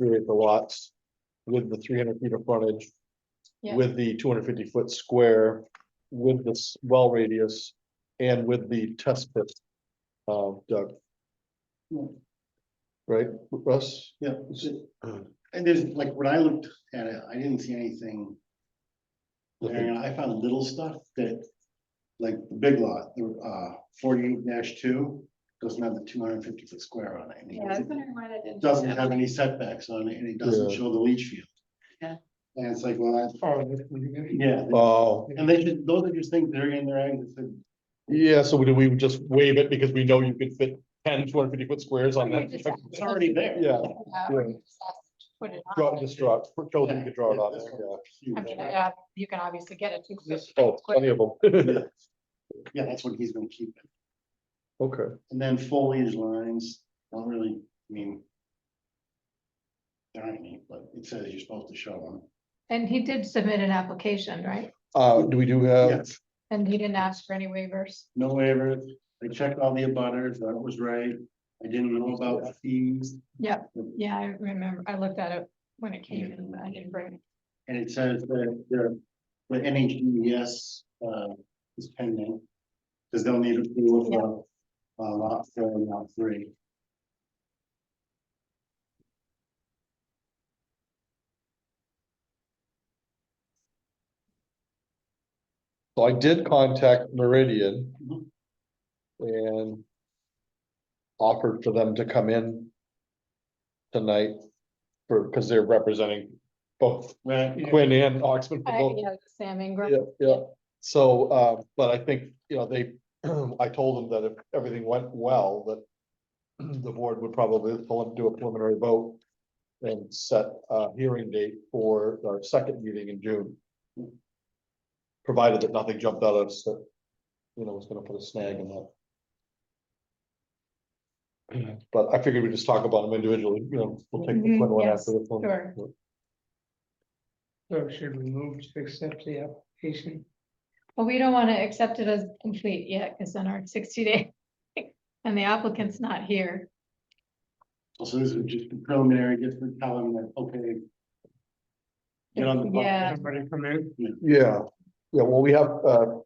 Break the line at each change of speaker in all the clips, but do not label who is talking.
create the lots with the three hundred feet of frontage.
Yeah.
With the two hundred fifty foot square, with this well radius and with the test pit. Uh, Doug.
Yeah.
Right, Russ?
Yeah, it's a-
Uh-huh.
and there's, like, when I looked at it, I didn't see anything there, and I found little stuff that, like, the big lot, the, uh, forty-eight two, doesn't have the two hundred and fifty foot square on it. and
Yeah, I was
it
wondering why that didn't.
Doesn't have any setbacks on it, and it doesn't
Yeah.
show the leach field.
Yeah.
And it's like, well, that's, yeah,
Oh,
and they should, those are just things that are in their angles, and
yeah, so do we would just waive it because we know you could fit 10 250 foot squares on
We
that?
just-
it's already there.
Yeah,
Yeah, or you just have to Put it
draw,
on.
just draw, it. show them you could draw it on
Yeah,
there,
this
yeah.
one's huge.
I mean, yeah, you can obviously get it too.
This-
Oh, plenty of them.
Yeah, that's what he's gonna keep.
Okay.
And then foliage lines, don't really, I mean. There aren't any, but it says you're supposed to show them.
And he did submit an application, right?
Uh, do we do have,
Yes,
And he didn't ask for any waivers.
no waiver, I checked all the abutters, that was right, I didn't know about fees,
Yeah, I remember, I looked at it when it came in, but I didn't bring it.
and it says that the. The NHDES E uh is pending, because they'll need approval for uh lot four and lot three.
so I did contact Meridian.
Mhm.
And. Offered for them to come in. Tonight. For, because they're representing both
Right,
Quinn and Oxman. for
I,
both.
yeah, Sam Ingram.
Yeah, yeah, so, uh, but I think, you know, they, I told them that if everything went well, that. The board would probably pull do a preliminary vote. And set a hearing date for our second meeting in June. Provided that nothing jumped out at us that, you know, was gonna put a snag in that. But I figured we'd just talk about them individually, you know, we'll take the
Mhm,
Quinn one
yes,
after the one.
sure.
So should we move to accept the application?
But we don't want to accept it as complete yet, because then our sixty day, and the applicant's not here.
so this is just preliminary, just to tell them that, okay. Get on the.
Yeah.
Somebody come in,
Yeah, yeah, well, we have, uh. to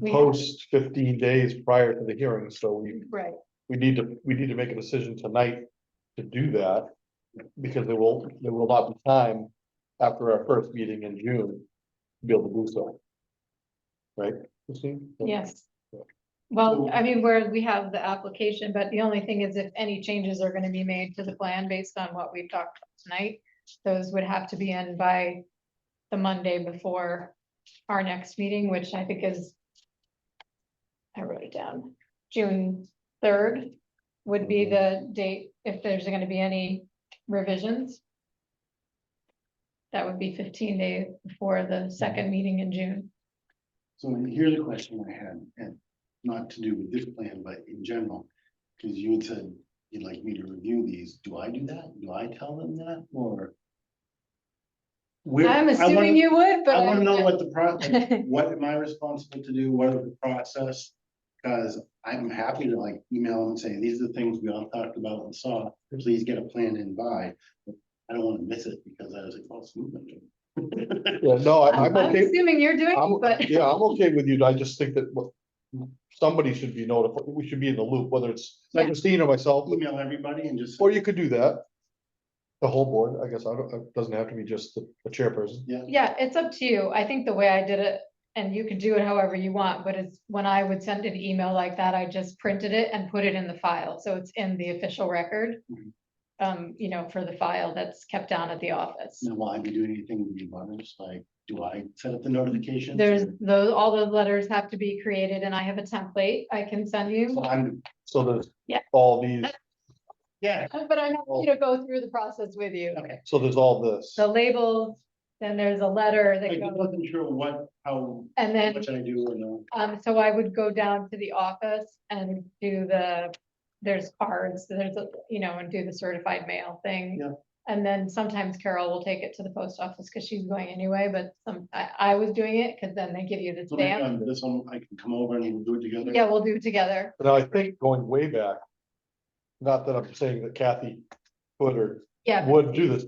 We have-
Post fifteen days prior to the hearing, so we,
Right.
we need to, we need to make a decision tonight to do that. Because there will, there will not be time after our first meeting in June to be able to do so. Right? Christine?
Yes.
Yeah.
Well, I mean, where we have the application, but the only thing is if any changes are gonna be made to the plan based on what we've talked about tonight, those would have to be in by the Monday before our next meeting, which I think is I wrote it down, June third would be the date, if there's gonna be any revisions. That would be fifteen days before the second meeting in June.
So here's a question I had, and not to do with this plan, but in general, because you had said you'd like me to review these, do I do that? Do I tell them that, or? Where-
I'm
I wanna-
assuming you would, but.
I wanna
I'm-
know what the process, what am I responsible to do, what are the process? Cause I'm happy to like email them and say, these are the things we all talked about and saw, please get a plan in by. But I don't wanna miss it, because I was like, oh, it's moving.
Yeah, no, I- I'm
I'm
okay,
assuming you're doing
I'm-
it, but
yeah, I'm okay with you, I just think that what- somebody should be notified, we should be in the loop, whether it's
Yeah.
Christine or myself,
Email everybody and just.
Or you could do that. The whole board, I guess, I don't, it doesn't have to be just the the chairperson.
yeah, it's up to you. I think the way I did it, and you could do it however you want, but it's when I would send an email like that, I just printed it and put it in the file, so it's in the official record.
Mhm.
Um, you know, for the file that's kept down at the office.
Now, will I be doing anything with the butters? Like, do I set up the notifications?
There's those, all those letters have to be created and I have a template I can send you.
So I'm,
So there's
Yeah.
all these,
yeah,
Uh, But I'm happy to go through the process with you.
okay.
so there's all this.
The labels, then there's a letter
I
that
just
goes,
wasn't sure what, how,
and then.
what I do or no.
Um, so I would go down to the office and do the, there's cards, there's, a you know, and do the certified mail thing.
Yeah.
And then sometimes Carol will take it to the post office because she's going anyway, but some, I, I was doing it because then they give you the
So maybe
stamp.
on this one, I can come over and we'll do it together.
Yeah, we'll do it together.
But I think going way back, not that I'm saying that Kathy could or
Yeah,
would do this.